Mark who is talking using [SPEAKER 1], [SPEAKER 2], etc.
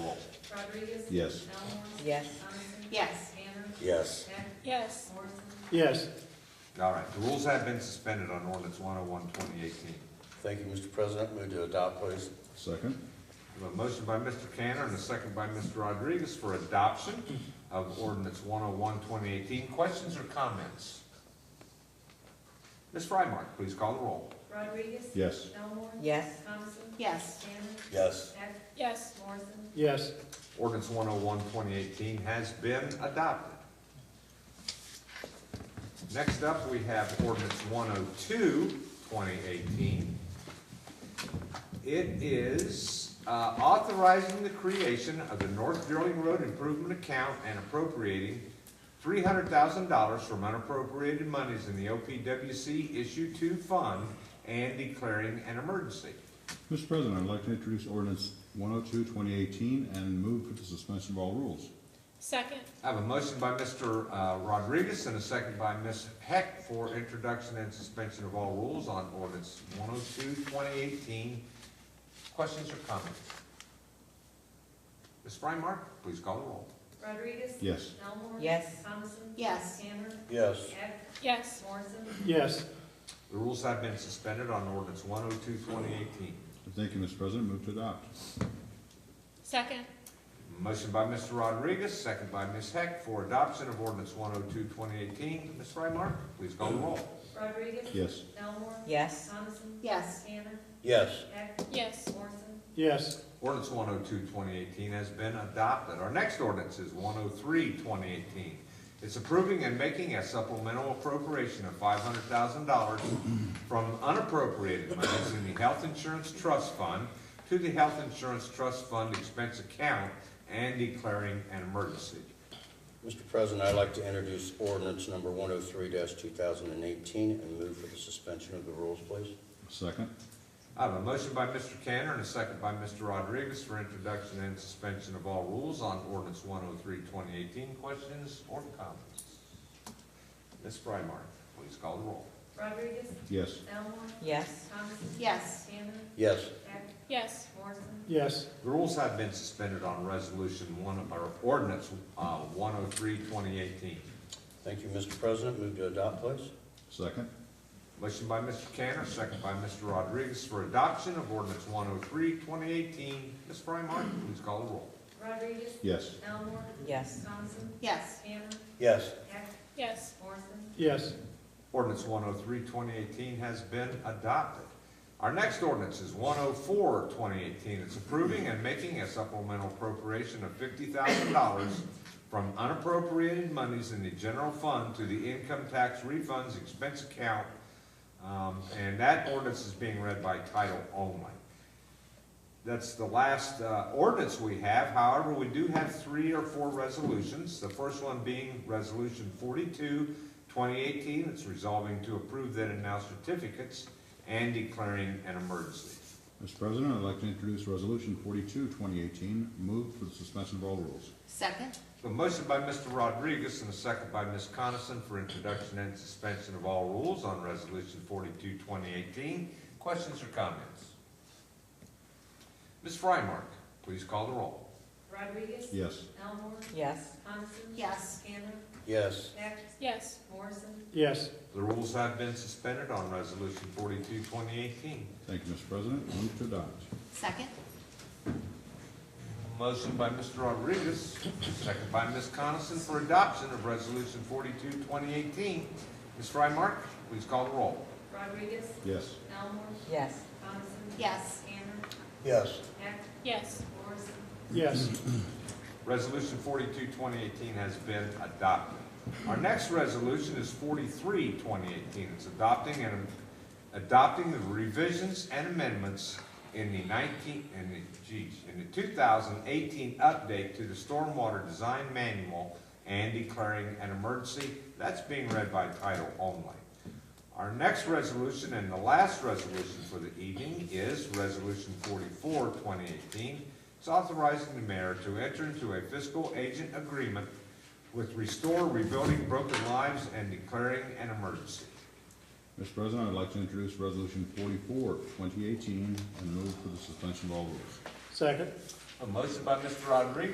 [SPEAKER 1] Rodriguez?
[SPEAKER 2] Yes.
[SPEAKER 1] Elmore?
[SPEAKER 3] Yes.
[SPEAKER 1] Coniston?
[SPEAKER 4] Yes.
[SPEAKER 1] Tanner?
[SPEAKER 5] Yes.
[SPEAKER 1] Heck?
[SPEAKER 4] Yes.
[SPEAKER 1] Morrison?
[SPEAKER 6] yes,
[SPEAKER 7] All right, the rules have been suspended on ordinance 101, 2018.
[SPEAKER 5] Thank you, Mr. President. Move to adopt, please.
[SPEAKER 2] Second?
[SPEAKER 7] We have a motion by Mr. Tanner and a second by Mr. Rodriguez for adoption of ordinance 101, 2018. Questions or comments? Ms. Frymark, please call the roll.
[SPEAKER 1] Rodriguez?
[SPEAKER 2] Yes.
[SPEAKER 1] Elmore?
[SPEAKER 3] Yes.
[SPEAKER 1] Coniston?
[SPEAKER 4] Yes.
[SPEAKER 1] Tanner?
[SPEAKER 5] Yes.
[SPEAKER 1] Heck?
[SPEAKER 4] Yes.
[SPEAKER 1] Morrison?
[SPEAKER 6] yes.
[SPEAKER 7] Ordinance 101, 2018 has been adopted. Next up, we have ordinance 102, 2018. It is uh, authorizing the creation of the North Drilling Road Improvement Account and appropriating $300,000 from unappropriated monies in the OPWC Issue 2 Fund and declaring an emergency.
[SPEAKER 2] Mr. President, I'd like to introduce ordinance 102, 2018, and move for the suspension of all rules.
[SPEAKER 4] Second.
[SPEAKER 7] I have a motion by Mr. uh, Rodriguez and a second by Ms. Heck for introduction and suspension of all rules on ordinance 102, 2018. Questions or comments? Ms. Frymark, please call the roll.
[SPEAKER 1] Rodriguez?
[SPEAKER 2] Yes.
[SPEAKER 1] Elmore?
[SPEAKER 3] Yes.
[SPEAKER 1] Coniston?
[SPEAKER 4] Yes.
[SPEAKER 1] Tanner?
[SPEAKER 5] Yes.
[SPEAKER 1] Heck?
[SPEAKER 4] Yes.
[SPEAKER 1] Morrison?
[SPEAKER 6] Yes,
[SPEAKER 7] The rules have been suspended on ordinance 102, 2018.
[SPEAKER 2] Thank you, Mr. President. Move to adopt.
[SPEAKER 4] Second.
[SPEAKER 7] Motion by Mr. Rodriguez, second by Ms. Heck for adoption of ordinance 102, 2018. Ms. Frymark, please call the roll.
[SPEAKER 1] Rodriguez?
[SPEAKER 2] Yes.
[SPEAKER 1] Elmore?
[SPEAKER 3] Yes.
[SPEAKER 1] Coniston?
[SPEAKER 4] Yes.
[SPEAKER 1] Tanner?
[SPEAKER 5] Yes.
[SPEAKER 1] Heck?
[SPEAKER 4] Yes.
[SPEAKER 1] Morrison?
[SPEAKER 6] yes,
[SPEAKER 7] Ordinance 102, 2018 has been adopted. Our next ordinance is 103, 2018. It's approving and making a supplemental appropriation of $500,000 from unappropriated monies in the Health Insurance Trust Fund to the Health Insurance Trust Fund expense account and declaring an emergency.
[SPEAKER 5] Mr. President, I'd like to introduce ordinance number 103-2018 and move for the suspension of the rules, please.
[SPEAKER 2] Second?
[SPEAKER 7] I have a motion by Mr. Cantor and a second by Mr. Rodriguez for introduction and suspension of all rules on ordinance 103, 2018. Questions or comments? Ms. Frymark, please call the roll.
[SPEAKER 1] Rodriguez?
[SPEAKER 2] Yes.
[SPEAKER 1] Elmore?
[SPEAKER 3] Yes.
[SPEAKER 1] Coniston?
[SPEAKER 4] Yes.
[SPEAKER 1] Tanner?
[SPEAKER 5] Yes.
[SPEAKER 1] Heck?
[SPEAKER 4] Yes.
[SPEAKER 1] Morrison?
[SPEAKER 6] yes,
[SPEAKER 7] The rules have been suspended on resolution one of our ordinance, uh, 103, 2018.
[SPEAKER 5] Thank you, Mr. President. Move to adopt, please.
[SPEAKER 2] Second?
[SPEAKER 7] Motion by Mr. Cantor, second by Mr. Rodriguez for adoption of ordinance 103, 2018. Ms. Frymark, please call the roll.
[SPEAKER 1] Rodriguez?
[SPEAKER 2] Yes.
[SPEAKER 1] Elmore?
[SPEAKER 3] Yes.
[SPEAKER 1] Coniston?
[SPEAKER 4] Yes.
[SPEAKER 1] Tanner?
[SPEAKER 5] Yes.
[SPEAKER 1] Heck?
[SPEAKER 4] Yes.
[SPEAKER 1] Morrison?
[SPEAKER 6] yes,
[SPEAKER 7] Ordinance 103, 2018 has been adopted. Our next ordinance is 104, 2018. It's approving and making a supplemental appropriation of $50,000 from unappropriated monies in the general fund to the income tax refunds expense account. Um, And that ordinance is being read by title only. That's the last uh, ordinance we have. However, we do have three or four resolutions. The first one being Resolution 42, 2018, it's resolving to approve then and now certificates and declaring an emergency.
[SPEAKER 2] Mr. President, I'd like to introduce resolution 42, 2018, move for the suspension of all rules.
[SPEAKER 4] Second.
[SPEAKER 7] A motion by Mr. Rodriguez and a second by Ms. Coniston for introduction and suspension of all rules on Resolution 42, 2018. Questions or comments? Ms. Frymark, please call the roll.
[SPEAKER 1] Rodriguez?
[SPEAKER 2] Yes.
[SPEAKER 1] Elmore?
[SPEAKER 3] Yes.
[SPEAKER 1] Coniston?
[SPEAKER 4] Yes.
[SPEAKER 1] Tanner?
[SPEAKER 5] Yes.
[SPEAKER 1] Heck?
[SPEAKER 4] Yes.
[SPEAKER 1] Morrison?
[SPEAKER 6] yes,
[SPEAKER 7] The rules have been suspended on Resolution 42, 2018.
[SPEAKER 2] Thank you, Mr. President. Move to adopt.
[SPEAKER 4] Second.
[SPEAKER 7] Motion by Mr. Rodriguez, second by Ms. Coniston for adoption of Resolution 42, 2018. Ms. Frymark, please call the roll.
[SPEAKER 1] Rodriguez?
[SPEAKER 2] Yes.
[SPEAKER 1] Elmore?
[SPEAKER 3] Yes.
[SPEAKER 1] Coniston?
[SPEAKER 4] Yes.
[SPEAKER 1] Tanner?
[SPEAKER 5] Yes.
[SPEAKER 1] Heck?
[SPEAKER 4] Yes.
[SPEAKER 1] Morrison?
[SPEAKER 6] yes,
[SPEAKER 7] Resolution 42, 2018 has been adopted. Our next resolution is 43, 2018. It's adopting and, adopting the revisions and amendments in the 19, in the, geez, in the 2018 update to the Stormwater Design Manual and declaring an emergency. That's being read by title only. Our next resolution and the last resolution for the evening is Resolution 44, 2018. It's authorizing the mayor to enter into a fiscal agent agreement with Restore Rebuilding Broken Lives and declaring an emergency.
[SPEAKER 2] Mr. President, I'd like to introduce resolution 44, 2018, and move for the suspension of all rules.
[SPEAKER 6] second.
[SPEAKER 7] A motion by Mr. Rodriguez